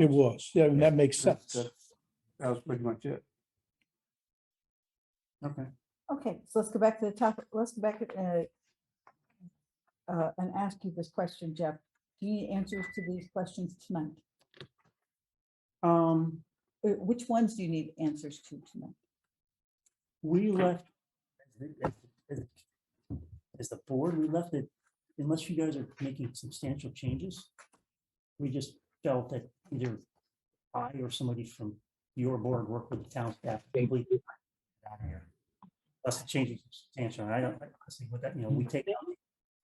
It was, yeah, and that makes That's- sense. that's- That was pretty much it. Okay, Okay, so let's go back to the top, let's go back uh, uh, and ask you this question, Jeff. Do you need answers to these questions tonight? um, Uh, Which ones do you need answers to tonight? we left. As the board, we left it, unless you guys are making substantial changes. We just felt that either I or somebody from your board worked with the town staff. to complete it. Unless the changes are substantial, and I don't, I see what that, you know, we take out.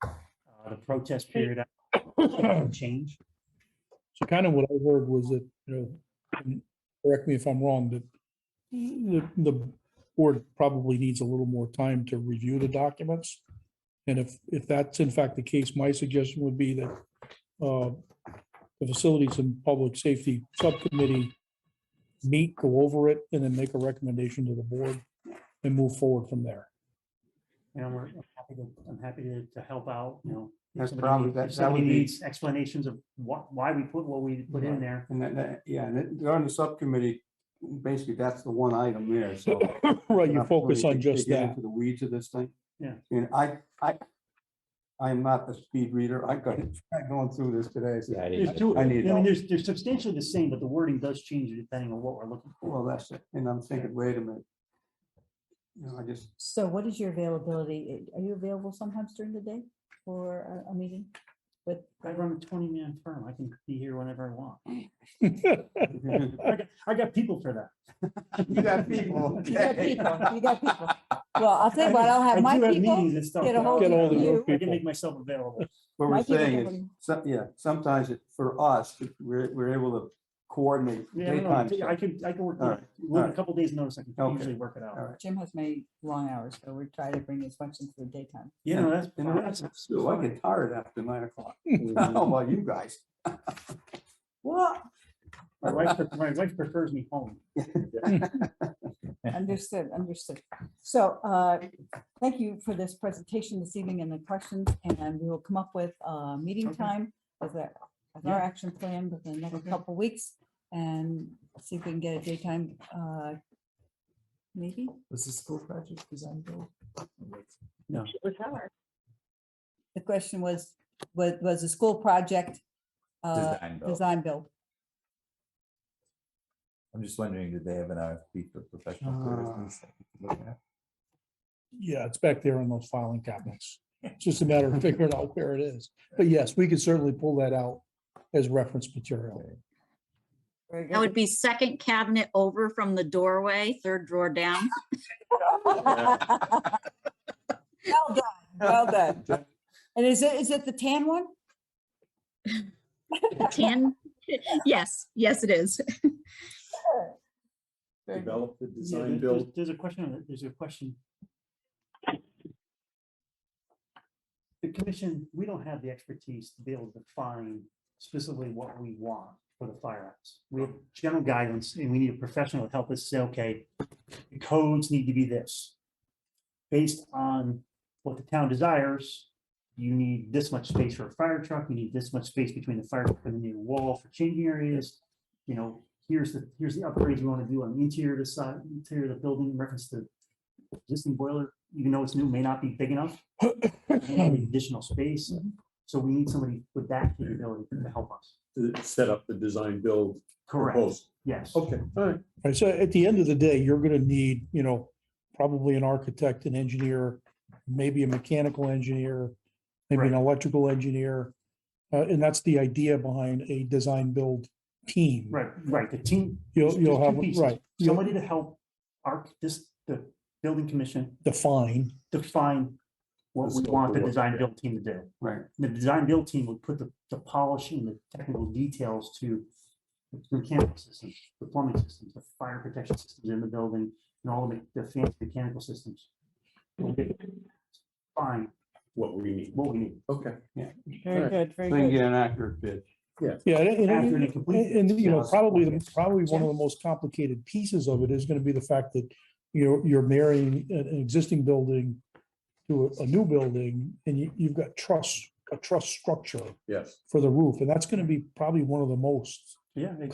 uh, The protest period. out, Change. So kind of what I heard was that, you know, and correct me if I'm wrong, that the, the board probably needs a little more time to review the documents. And if, if that's in fact the case, my suggestion would be that uh, the Facilities and Public Safety Subcommittee meet, go over it, and then make a recommendation to the board and move forward from there. You know, we're I'm happy to, I'm happy to, to help out, you know. if That's somebody probably- needs- that- if that Somebody would be- needs explanations of what, why we put what we put in Right. there. And that, that, yeah, and it- they're on the subcommittee, basically, that's the one item there, so. Right, you Enough focus really on to- to just get that. into The weeds of this thing. Yeah. And I, I, I'm not the speed reader, I got, I'm going through this today, so Yeah, I There's didn't- two, I I need mean, help. there's, they're substantially the same, but the wording does change depending on what we're looking for. Well, that's it. And I'm thinking, wait a minute. You know, I just, So what is your availability? Are you available sometimes during the day for a, a meeting? But I run a twenty man firm. I can be here whenever I want. you I got, I got people for that. got people. you got okay. people, you got people. Well, I'll tell you what, I'll I have do Uh, my people. meetings and stuff, get a but I'll- hold Get all of the you. good I can people. make myself available. What My we're people saying can is, bring- some, yeah, sometimes it, for us, we're, we're able to coordinate Yeah, I don't know, daytime. I stuff. could, I could work, All right, all with a right. couple days notice, I can Okay, usually work it all out. right. Jim has made long hours, so we're trying to bring as much into the daytime. You know, that's. And the that's- rest of us too. I get tired after nine o'clock. How about you guys? What? My wife, pref- my wife prefers me home. Understood, understood. So uh, thank you for this presentation this evening and the questions, and we will come up with a meeting Okay. time as a, as our Yeah. action plan within the next Okay. couple weeks and see if we can get a daytime uh, maybe. Was the school project design build? The question was, was, was a school project uh, Design build. design build? I'm just wondering, did they have an RFP for professional services? that we could look at? Yeah, it's back there in those filing cabinets. It's just a matter of figuring out where it is. But yes, we could certainly pull that out as reference material. Very That good. would be second cabinet over from the doorway, third drawer down. Well done, well done. And is it, is it the tan one? Ten, yes, yes, it is. Very good. develop the Yeah, design there- there's- build. There's a question, on it. there's a question. The commission, we don't have the expertise to be able to define specifically what we want for the firehouse. We have general guidance and we need a professional to help us say, okay, the codes need to be this. Based on what the town desires, you need this much space for a fire truck, you need this much space between the fire truck and the new wall for changing areas. You know, here's the, here's the upgrades you want to do on the interior of the side, interior of the building, reference to existing boiler, even though it's new, may not be big enough. you know, need Additional space, Mhm. so we need somebody with that capability to help us. to Set up the design build proposal. Yes. Okay, all right. Right, so at the end of the day, you're gonna need, you know, probably an architect, an engineer, maybe a mechanical engineer, maybe an electrical engineer. Uh, and that's the idea behind a design build team. Right, right, the team. You'll, there's- you'll there's two have, pieces. right, you'll Somebody to help arc this, the building commission define, define what The we scope want of the work, design build team to do. Right. The design build team would put the, the polishing, the technical details to the mechanical systems, the plumbing systems, the fire protection systems in the building, and all the, the fancy mechanical systems. We'll get- Fine, What we need. what we need. Okay. Very Alright. good, So very you can good. get an accurate bid. yeah. and- and- Accurate and And, complete. and, you know, Yes. probably, the- probably one of the most complicated pieces of it is gonna be the fact that you're, you're marrying an, an existing building to a, a new building, and you, you've got trust, a trust structure Yes. for the roof, and that's gonna be probably one of the most Yeah,